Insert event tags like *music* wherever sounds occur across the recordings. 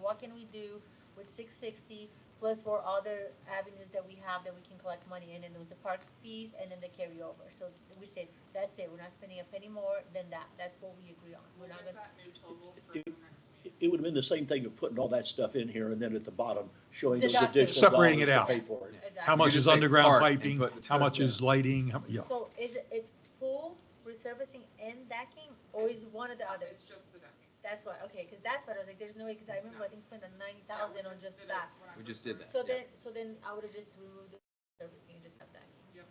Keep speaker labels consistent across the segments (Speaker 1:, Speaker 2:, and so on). Speaker 1: what can we do with six sixty plus four other avenues that we have that we can collect money in, and those the park fees and then the carryover. So we said, that's it, we're not spending a penny more than that, that's what we agree on, we're
Speaker 2: We'll
Speaker 1: not
Speaker 2: get
Speaker 1: gonna,
Speaker 2: that new total for the next meeting.
Speaker 3: It would have been the same thing of putting all that stuff in here and then at the bottom showing those
Speaker 1: Deducting.
Speaker 3: additional dollars
Speaker 4: Separating it
Speaker 3: to
Speaker 4: out.
Speaker 3: pay for it.
Speaker 1: exactly.
Speaker 4: How much
Speaker 5: just
Speaker 4: is
Speaker 5: say
Speaker 4: underground
Speaker 5: park and
Speaker 4: piping,
Speaker 5: put-
Speaker 4: how much is lighting, how- yeah.
Speaker 1: So is it, it's pool, resurfacing and decking, or is one of the others?
Speaker 2: It's just the decking.
Speaker 1: That's why, okay, because that's what I was like, there's no way, because I remember I think spent a ninety
Speaker 2: Yeah, we
Speaker 1: thousand on just
Speaker 2: did it
Speaker 1: that.
Speaker 2: when I
Speaker 5: We
Speaker 2: first
Speaker 5: just did
Speaker 2: started.
Speaker 1: So
Speaker 5: Yeah.
Speaker 1: then, so then I would have just removed the servicing and just have that.
Speaker 2: Okay.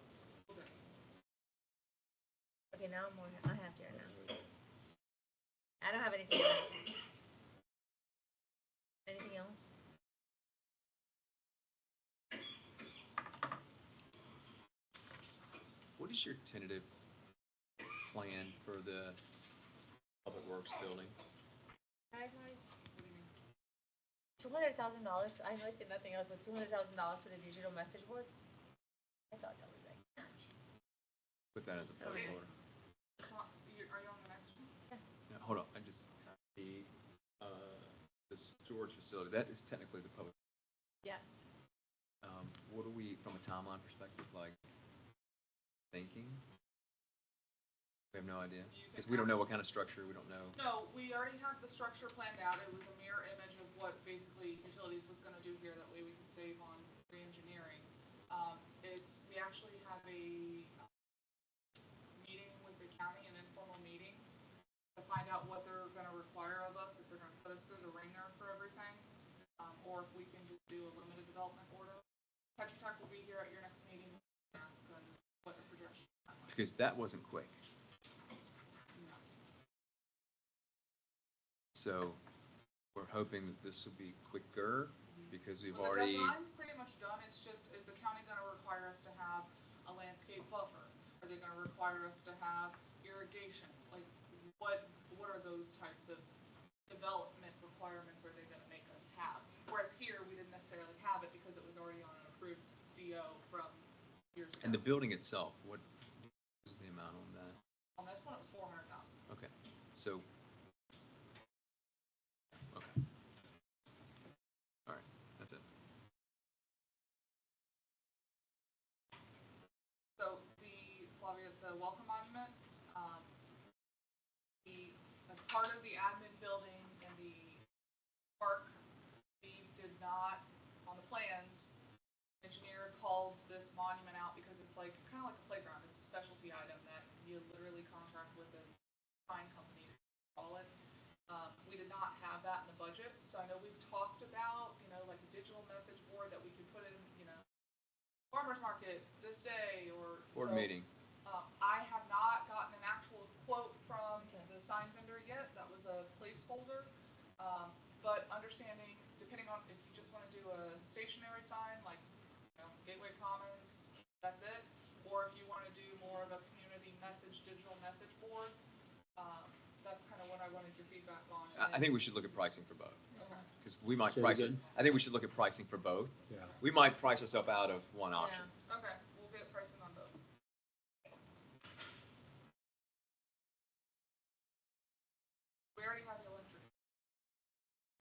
Speaker 1: Okay, now I'm more, I have there now. I don't have anything else. Anything else?
Speaker 5: What is your tentative plan for the Public Works building?
Speaker 1: Two hundred thousand dollars, I know I said nothing else, but two hundred thousand dollars for the digital message board? I thought that was like,
Speaker 5: Put that as a
Speaker 1: Sorry.
Speaker 5: placeholder.
Speaker 2: It's not- you- Are you on the next one?
Speaker 5: No, hold on, I just, the, uh, the storage facility, that is technically the public.
Speaker 1: yes.
Speaker 5: Um, what are we, from a timeline perspective, like, thinking? We have no idea,
Speaker 2: You
Speaker 5: because
Speaker 2: can
Speaker 5: we don't know
Speaker 2: ask-
Speaker 5: what kind of structure, we don't know.
Speaker 2: No, we already had the structure planned out. It was a mirror image of what basically utilities was gonna do here. That way we can save on re-engineering. Um, it's, we actually have a um, meeting with the county, an informal meeting, to find out what they're gonna require of us, if they're gonna put us through the ringer for everything, um, or if we can just do a limited development order. Tetra Tech will be here at your next meeting, and ask them what the projection. timeline
Speaker 5: Because that wasn't quick,
Speaker 2: is.
Speaker 5: so we're hoping that this will be quicker, because we've
Speaker 2: Well,
Speaker 5: already.
Speaker 2: The deadline's pretty much done, it's just, is the county gonna require us to have a landscape buffer? Are they gonna require us to have irrigation? Like, what, what are those types of development requirements are they gonna make us have? Whereas here, we didn't necessarily have it because it was already on an approved DO from years ago.
Speaker 5: And the building itself, what is the amount on that?
Speaker 2: On this one, it was four hundred thousand.
Speaker 5: Okay, so. Okay. All right, that's it.
Speaker 2: So the, Flavia, the welcome monument, um, the, as part of the admin building and the park, we did not, on the plans, engineer called this monument out because it's like, kind of like a playground, it's a specialty item that you literally contract with a fine company to call it. Um, we did not have that in the budget, so I know we've talked about, you know, like a digital message board that we could put in, you know, farmer's market this day or.
Speaker 5: Board
Speaker 2: so-
Speaker 5: meeting,
Speaker 2: um, I have not gotten an actual quote from the sign vendor yet, that was a placeholder. Um, but understanding, depending on if you just wanna do a stationary sign, like, you know, Gateway Commons, that's it. Or if you wanna do more of a community message, digital message board, um, that's kinda what I wanted your feedback on. and
Speaker 5: I, I
Speaker 2: then-
Speaker 5: think we should look at pricing for both,
Speaker 2: Okay.
Speaker 5: because we might
Speaker 3: Say it
Speaker 5: price it,
Speaker 3: again?
Speaker 5: I think we should look at pricing for both.
Speaker 3: Yeah.
Speaker 5: We might price ourselves out of one option.
Speaker 2: Okay, we'll get pricing on both. We already have the electric.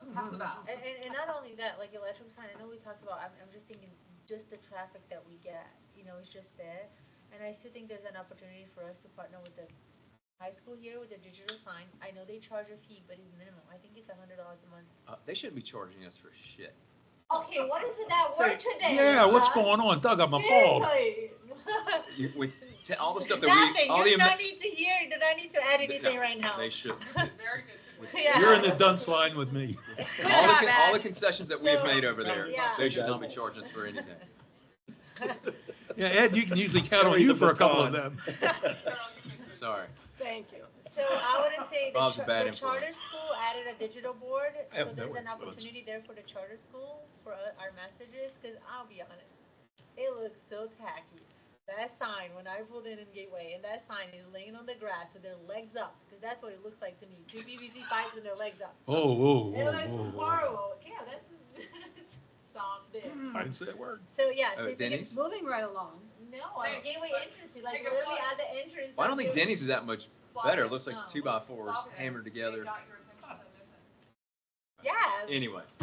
Speaker 2: That's half the battle.
Speaker 1: And, and, and not only that, like electric sign, I know we talked about, I'm, I'm just thinking, just the traffic that we get, you know, it's just there. And I still think there's an opportunity for us to partner with the high school here with the digital sign. I know they charge a fee, but it's minimal. I think it's a hundred dollars a month.
Speaker 5: Uh, they shouldn't be charging us for shit.
Speaker 1: Okay, what is with that word today?
Speaker 4: Yeah, what's going on? Doug, I'm appalled.
Speaker 5: You- With, te- all the stuff that we,
Speaker 1: Nothing,
Speaker 5: all
Speaker 1: you
Speaker 5: the.
Speaker 1: do not
Speaker 5: ama-
Speaker 1: need to hear, you do not need to add anything
Speaker 5: No,
Speaker 1: right now. *laughs*
Speaker 5: They should.
Speaker 2: Very good to know.
Speaker 1: Yeah.
Speaker 4: You're in the dunce line with me.
Speaker 1: Good
Speaker 5: All the,
Speaker 1: job,
Speaker 5: con- all the
Speaker 1: Ed.
Speaker 5: concessions that we've
Speaker 1: So-
Speaker 5: made over there,
Speaker 1: Yeah.
Speaker 5: they should not be charging us for anything.
Speaker 4: Yeah, Ed, you can usually count on
Speaker 3: Carry
Speaker 4: you
Speaker 3: the
Speaker 4: for a couple of
Speaker 3: baton.
Speaker 4: them.
Speaker 2: *laughs* Girl, you can do it.
Speaker 5: Sorry.
Speaker 6: Thank you.
Speaker 1: So I wouldn't say the
Speaker 5: Bob's a
Speaker 1: char-
Speaker 5: bad
Speaker 1: the charter
Speaker 5: influence.
Speaker 1: school added a digital board,
Speaker 4: I
Speaker 1: so
Speaker 4: have no
Speaker 1: there's an
Speaker 4: influence.
Speaker 1: opportunity there for the charter school for uh, our messages, cause I'll be honest. It looks so tacky. That sign, when I pulled in in Gateway, and that sign is laying on the grass with their legs up, cause that's what it looks like to me. Two BBC fights with their legs up.
Speaker 4: Oh, whoa,
Speaker 1: It
Speaker 4: whoa, whoa,
Speaker 1: looks
Speaker 4: whoa.
Speaker 1: horrible. Yeah, that's, *laughs* stop there.
Speaker 4: I didn't say a word.
Speaker 1: So, yeah, so
Speaker 5: Uh,
Speaker 1: if you can,
Speaker 5: Denny's?
Speaker 6: Moving right along.
Speaker 1: no, on
Speaker 2: Hey,
Speaker 1: Gateway
Speaker 2: but-
Speaker 1: entrance, like
Speaker 2: think of
Speaker 1: literally
Speaker 2: what-
Speaker 1: at the entrance.
Speaker 5: Well, I don't
Speaker 1: of
Speaker 5: think
Speaker 1: Gateway.
Speaker 5: Denny's is that much better. It
Speaker 2: Flavia,
Speaker 5: looks like two by fours
Speaker 2: Flavia,
Speaker 5: hammered
Speaker 2: they
Speaker 5: together.
Speaker 2: got your attention, didn't they?
Speaker 1: Yeah.
Speaker 5: Anyway,